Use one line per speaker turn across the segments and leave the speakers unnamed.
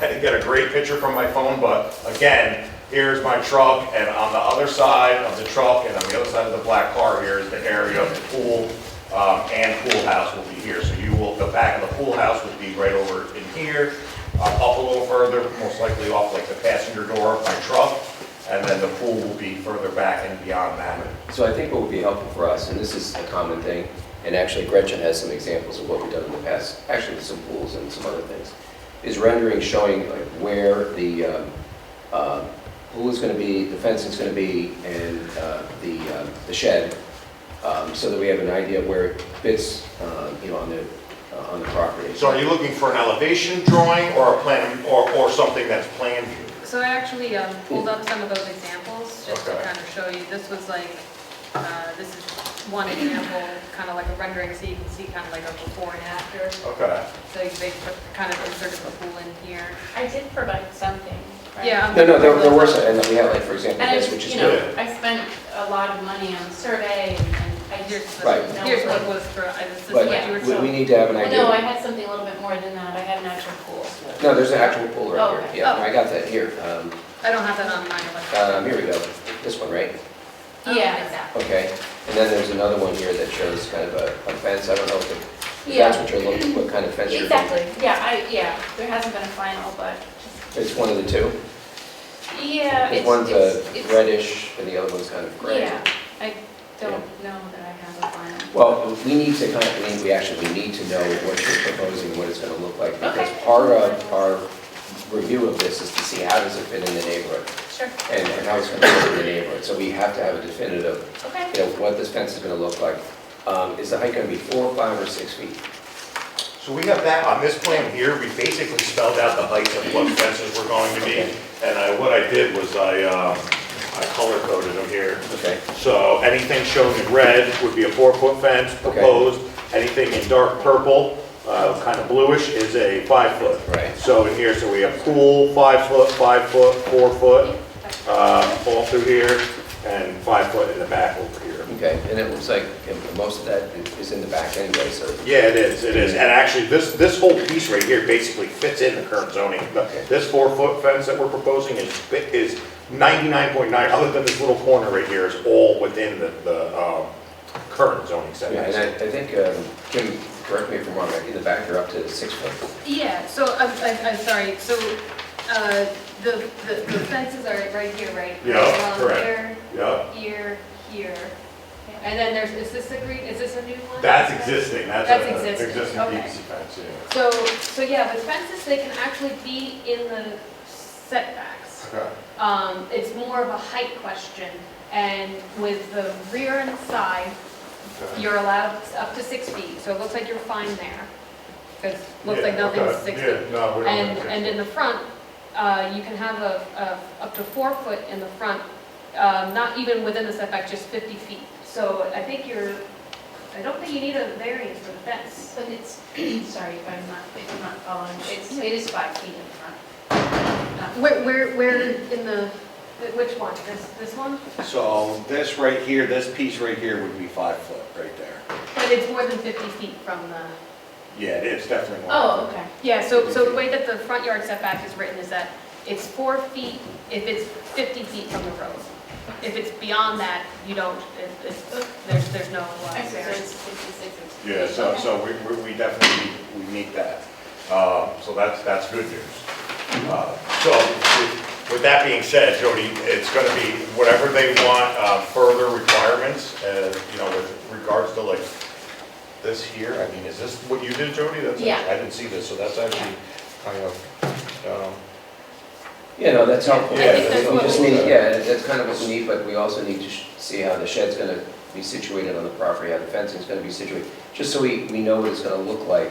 I didn't get a great picture from my phone, but again, here's my truck, and on the other side of the truck, and on the other side of the black car here is the area of the pool, um, and pool house will be here, so you will, the back of the pool house would be right over in here, uh, up a little further, most likely off like the passenger door of my truck, and then the pool will be further back and beyond that.
So I think what would be helpful for us, and this is a common thing, and actually Gretchen has some examples of what we've done in the past, actually with some pools and some other things, is rendering showing like where the um, um, pool is going to be, the fencing's going to be, and uh, the um, the shed, um, so that we have an idea of where it fits, um, you know, on the, uh, on the property.
So are you looking for an elevation drawing or a plan, or, or something that's plan view?
So I actually um, pulled up some of those examples, just to
Okay.
kind of show you, this was like, uh, this is one example, kind of like a rendering, so you can see kind of like a before and after.
Okay.
So you- they put- kind of inserted the pool in here.
I did provide something. right?
Yeah. I'm
No, no, there
gonna-
there were some, and we have like, for example,
And
this,
I,
which is
you know,
good.
I spent a lot of money on the survey and and I
Here's,
just.
Right.
the- here's what was, for- I- this is
But
what you were
we we
showing.
need to have an
Well,
idea.
Oh, no, I had something a little bit more than that. I had an actual pool.
No, there's an actual pool
Oh,
right
okay.
here. Yeah,
Oh.
I got that here. Um,
I don't have that on mine,
Uh,
but.
um, Here we go. This one, right?
Yeah.
Exactly.
Okay, and then there's another one here that shows kind of a a fence, I don't know if it- if
Yeah.
that's what you're looking, what kind of fence you're.
Exactly, yeah, I, yeah, there hasn't been a final, but,
It's one of the two?
yeah, Uh, it's,
One's a
it's, it's,
reddish and the other one's kind of gray.
yeah, I don't know that I have a final.
Well, we need to kind of, we- we actually, we need to know what you're proposing, what it's going to look like. Because
Okay.
part of our review of this is to see how does it fit in the neighborhood
Sure,
and and how it's going to fit in the neighborhood. So we have to have a definitive,
okay.
you know, what this fence is going to look like. Um, Is the height going to be four, five, or six feet?
So we have that, on this plan here, we basically spelled out the heights of what fences were going to be. And I, what I did was I, um, I color coded them here.
Okay.
So anything shown in red would be a four-foot fence proposed. Anything in dark purple, uh, kind of bluish, is a five-foot.
Right.
So in here, so we have pool, five-foot, five-foot, four-foot, um, all through here, and five-foot in the back over here.
Okay, and it looks like um, most of that is in the back anyway, so,
Yeah, it is, it is, and actually, this, this whole piece right here basically fits in the current zoning. The- This four-foot fence that we're proposing is, bi- is ninety-nine point nine, other than this little corner right here, is all within the, the, um, current zoning
yeah, and I,
setting.
I think, um, Jim, correct me if I'm wrong, in the back you're up to six foot.
Yeah, so I'm, I'm, I'm sorry, so, uh, the, the the fences are right here, right?
Yeah,
Um,
correct.
Here,
Yeah,
here, here. And then there's, is this the green, is this a new one?
that's existing, that's
That's
a- a
existing,
existing
okay.
PVC fence, yeah.
So, so yeah, the fences, they can actually be in the setbacks.
Okay.
Um, it's more of a height question, and with the rear and side,
okay.
you're allowed up to six feet, so it looks like you're fine there. Because it looks like
Yeah,
nothing's
okay.
six
Yeah,
feet.
no, we don't
And,
have
and
six
in the front, uh, you can have a, a, up to four foot in the front, um, not even within the setback, just 50 feet. So I think you're, I don't think you need a variance for the fence.
But it's, sorry if I'm not, if I'm not following, it's, it is five feet in front. Not-
Where, where, where in the, which one? This, this one?
So this right here, this piece right here would be five foot right there.
But it's more than 50 feet from the.
Yeah, it is definitely. more.
Oh, okay.
Yeah, so, so the way that the front yard setback is written is that it's four feet if it's 50 feet from the road. If it's beyond that, you don't, it- it's, there's, there's no uh,
I see, so
variance.
it's 66 inches.
Yeah, so,
Okay.
so we, we- we definitely, we meet that. Uh, So that's, that's good news. Uh, So with- with that being said, Jody, it's going to be whatever they want, uh, further requirements, uh, you know, with regards to like this here, I mean, is this what you did, Jody? That's-
Yeah.
I didn't see this, so that's actually kind of, um,
Yeah, no, that's helpful.
I think that's
We
what
just
we-
need- Yeah, that's kind of what we need, but we also need to sh- see how the shed's going to be situated on the property, how the fencing's going to be situated, just so we, we know what it's going to look like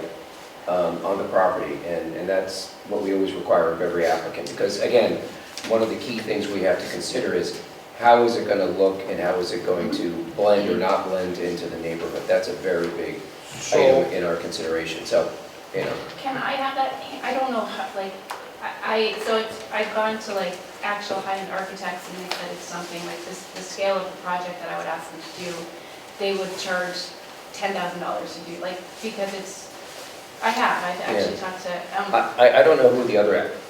um, on the property, and, and that's what we always require of every applicant, because again, one of the key things we have to consider is how is it going to look and how is it going to blend or not blend into the neighborhood? That's a very big
so,
item in our consideration, so, you know.
Can I have that, I don't know how, like, I, I- so it's, I've gone to like actual high-end architects and they said it's something like this, the scale of the project that I would ask them to do, they would charge ten thousand dollars to do, like, because it's, I have, I've actually talked to, um,
I, I- I don't know who the other app-